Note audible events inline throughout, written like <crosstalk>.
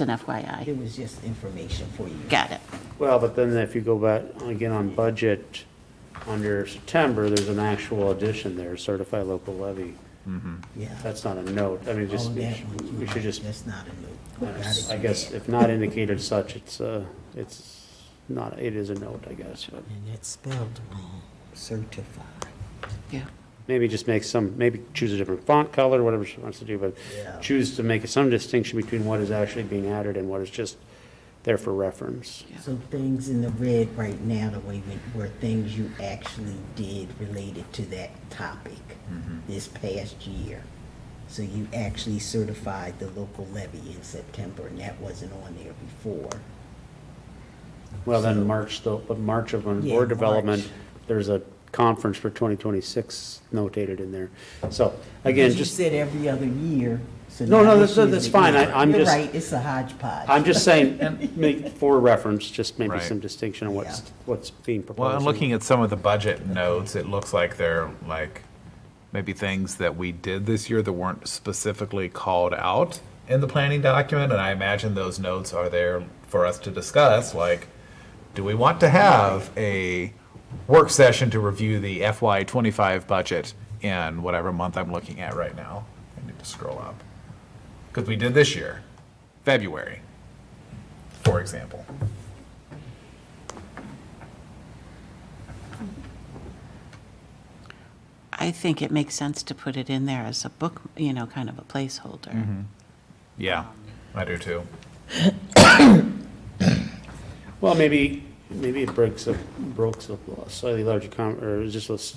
an FYI. It was just information for you. Got it. Well, but then if you go back, again, on budget, under September, there's an actual addition there, certified local levy. Yeah. That's not a note, I mean, Oh, just, that one, you're we should right. just, uh, That's not a note. I guess, if not indicated such, it's, uh, it's not, it is a note, I guess, but And that's spelled wrong, certified. Yeah. maybe just make some, maybe choose a different font color, whatever she wants to do, but Yeah. choose to make some distinction between what is actually being added and what is just there for reference. So things in the red right now, the way we, were things you actually did related to that topic Mm-hmm. this past year. So you actually certified the local levy in September, and that wasn't on there before. Well, then March, though, but March of on Yeah, board development, March. there's a conference for 2026 notated in there. So again, Because just, You said every other year, so. No, no, now that's- this year's that's the fine. I- year. I'm You're just- right, it's a hodgepodge. I'm just <laughs> saying, make for reference, just maybe Right. some distinction on what's, Yeah. what's being proposed. Well, and looking at some of the budget notes, it looks like they're like maybe things that we did this year that weren't specifically called out in the planning document. And I imagine those notes are there for us to discuss, like, do we want to have a work session to review the FY twenty-five budget in whatever month I'm looking at right now? I need to scroll up. Because we did this year, February, for example. I think it makes sense to put it in there as a book, you know, kind of a Mm-hmm. placeholder. Yeah, I do too. Well, maybe, maybe it breaks up, breaks up a slightly larger com, or is just, a s-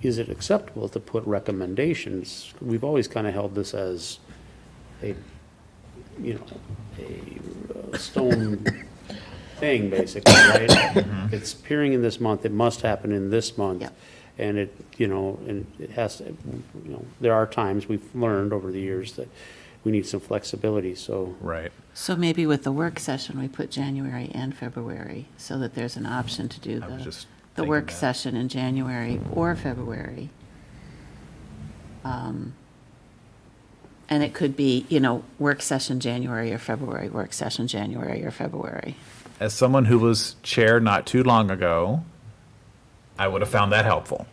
is it acceptable to put recommendations? We've always kind of held this as a, you know, a uh, stone thing, basically, right? It's appearing in this month, it must happen in this month. Yep. And it, you know, and it has, to you know, there are times we've learned over the years that we need some flexibility, so. Right. So maybe with the work session, we put January and February so that there's an option to do I was the, just the thinking work that. session in January or February. Um, And it could be, you know, work session January or February, work session January or February. as someone who was chair not too long ago, I would have found that helpful.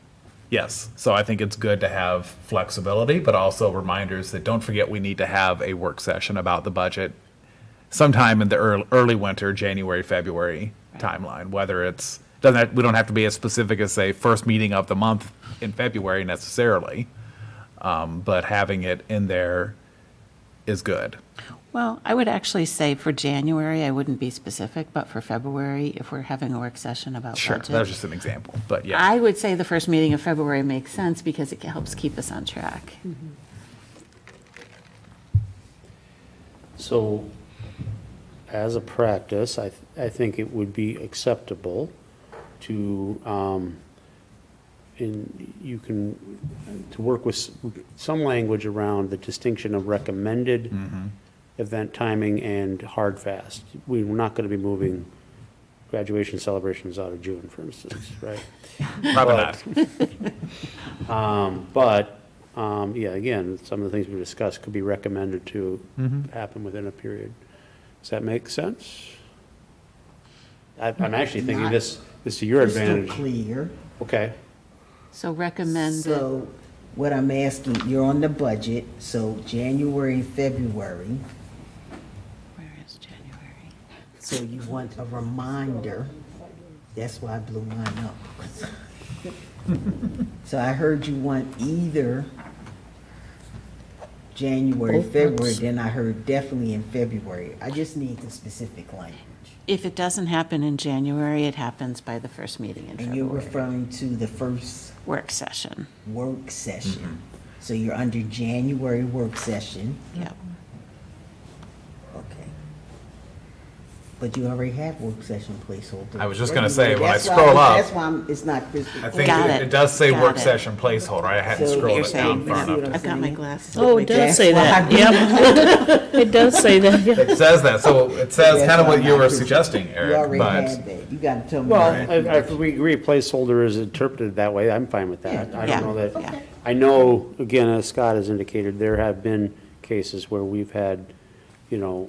Yes. So I think it's good to have flexibility, but also reminders that don't forget we need to have a work session about the budget sometime in the early, early winter, January, February timeline, whether it's doesn't have, we don't have to be as specific as say first meeting of the month in February necessarily, um, but having it in there is good. Well, I would actually say for January, I wouldn't be specific, but for February, if we're having a work session about Sure, that was budget. just an example, but yeah. I would say the first meeting of February makes sense because it helps keep us on track. So, as a practice, I, th- I think it would be acceptable to, um, in, you can, to work with s- some language around the distinction of recommended event timing and hard fast. We're not gonna be moving graduation celebrations out of June, for instance, right? Probably not. Um, But, um, yeah, again, some of the things we discussed could be recommended to happen within a period. Does that make sense? I- I'm actually thinking Not this, this to your advantage. Crystal clear. Okay, So recommended, So what I'm asking, you're on the budget, so January, February, where is January? so you want a reminder. That's why I blew mine up. <laughs> So I heard you want either January, February, then I heard definitely in February. I just need the specific language. If it doesn't happen in January, it happens by the first meeting in And you're February, referring to the first work session. work session. Mm-hmm. So you're under January work session. Yep. Okay. But you already had work session placeholder. I was just gonna say, when I That's why- scroll up- That's why I'm- it's not crystal. I think Got it, it. it does say Got work it. session placeholder. I hadn't So scrolled you're it saying- down far You see what enough. I've got my glasses. Oh, it does say that, yep. It does say that, yeah. It says <laughs> that, so it says That's kind of why what you I'm were not- suggesting, You Eric, already but had that. You gotta tell me. well, that. if- if we agree placeholder is interpreted that way, I'm fine with that. I Yeah. don't know Yeah. that, I know, again, as Scott has indicated, there have been cases where we've had, you you know,